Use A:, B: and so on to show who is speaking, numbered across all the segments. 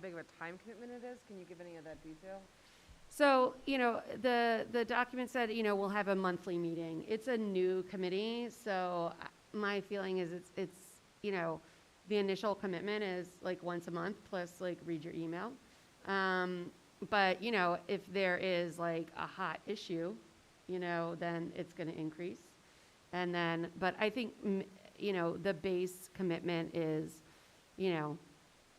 A: big of a time commitment it is? Can you give any of that detail?
B: So, you know, the, the document said, you know, we'll have a monthly meeting. It's a new committee, so I- my feeling is it's, it's, you know, the initial commitment is like once a month, plus like read your email. Um, But, you know, if there is like a hot issue, you know, then it's going to increase. And then, but I think, mm, you know, the base commitment is, you know,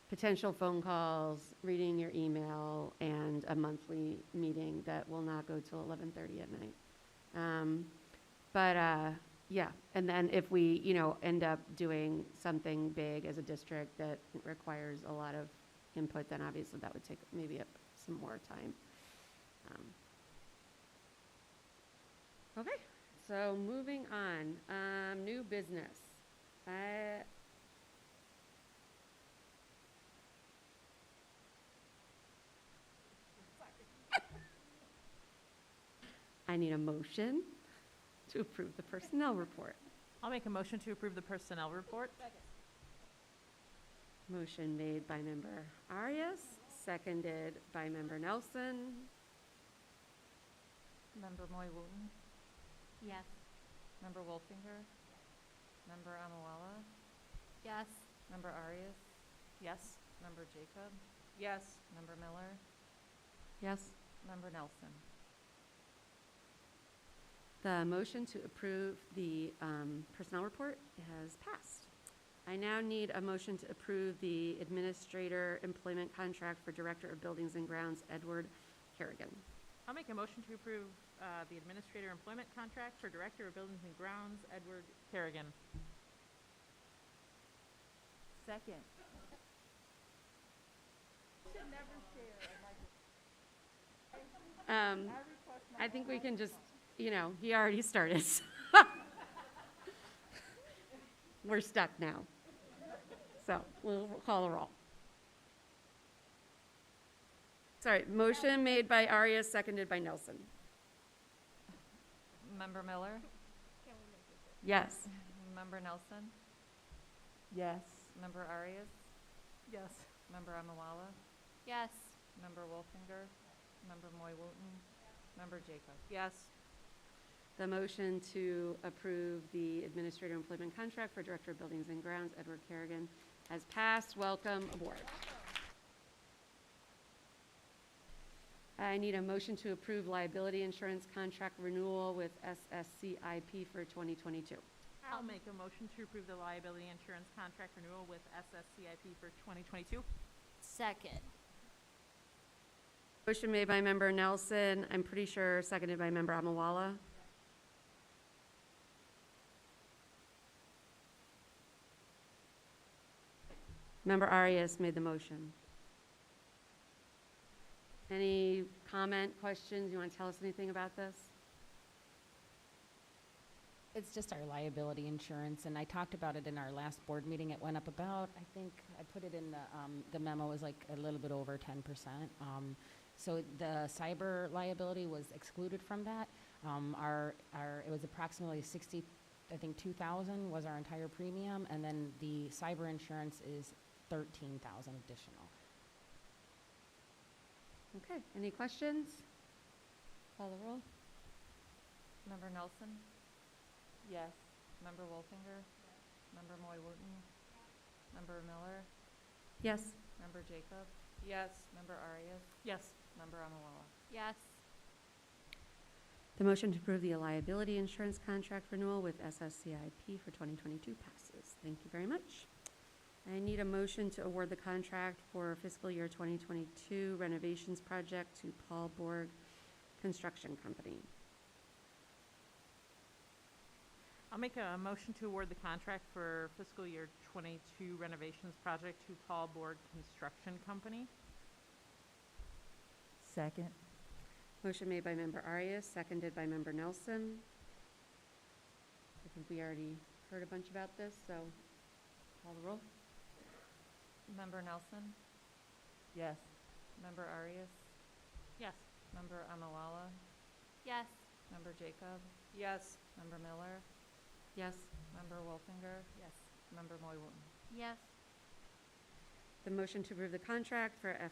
B: potential phone calls, reading your email, and a monthly meeting that will not go till 11:30 at night. Um, But, uh, yeah, and then if we, you know, end up doing something big as a district that requires a lot of input, then obviously that would take maybe up some more time. Um, Okay, so moving on, um, new business. I, I need a motion to approve the personnel report.
C: I'll make a motion to approve the personnel report.
B: Motion made by member Arias, seconded by member Nelson.
D: Member Moy Wooten?
E: Yes.
D: Member Wolfinger? Member Amawala?
E: Yes.
D: Member Arias?
C: Yes?
D: Member Jacob?
C: Yes.
D: Member Miller?
B: Yes.
D: Member Nelson?
B: The motion to approve the um, personnel report has passed. I now need a motion to approve the administrator employment contract for Director of Buildings and Grounds, Edward Harrigan.
C: I'll make a motion to approve uh, the administrator employment contract for Director of Buildings and Grounds, Edward Kerrigan.
D: Second.
B: Um, I think we can just, you know, he already started. so. We're stuck now. So we'll call a roll. Sorry, motion made by Arias, seconded by Nelson.
D: Member Miller?
B: Yes.
D: Member Nelson?
C: Yes.
D: Member Arias?
C: Yes.
D: Member Amawala?
E: Yes.
D: Member Wolfinger? Member Moy Wooten? Member Jacob?
C: Yes.
B: The motion to approve the administrator employment contract for Director of Buildings and Grounds, Edward Kerrigan, has passed. Welcome aboard. I need a motion to approve liability insurance contract renewal with SSCIP for 2022.
C: I'll
E: Um,
C: make a motion to approve the liability insurance contract renewal with SSCIP for 2022.
E: Second.
B: Motion made by member Nelson, I'm pretty sure seconded by member Amawala. Member Arias made the motion. Any comment, questions? You want to tell us anything about this?
F: It's just our liability insurance, and I talked about it in our last board meeting. It went up about, I think, I put it in the, um, the memo was like a little bit over ten percent. Um, so the cyber liability was excluded from that. Um, our, our, it was approximately sixty, I think, two thousand was our entire premium, and then the cyber insurance is thirteen thousand additional.
B: Okay, any questions? Call the roll.
D: Member Nelson?
C: Yes.
D: Member Wolfinger? Member Moy Wooten? Member Miller?
B: Yes.
D: Member Jacob?
C: Yes.
D: Member Arias?
C: Yes.
D: Member Amawala?
E: Yes.
B: The motion to approve the liability insurance contract renewal with SSCIP for 2022 passes. Thank you very much. I need a motion to award the contract for fiscal year 2022 renovations project to Paul Borg Construction Company.
C: I'll make a motion to award the contract for fiscal year 22 renovations project to Paul Borg Construction Company.
D: Second.
B: Motion made by member Arias, seconded by member Nelson. I think we already heard a bunch about this, so call the roll.
D: Member Nelson?
C: Yes.
D: Member Arias?
C: Yes.
D: Member Amawala?
E: Yes.
D: Member Jacob?
C: Yes.
D: Member Miller?
B: Yes.
D: Member Wolfinger?
C: Yes.
D: Member Moy Wooten?
E: Yes.
B: the motion to approve the contract for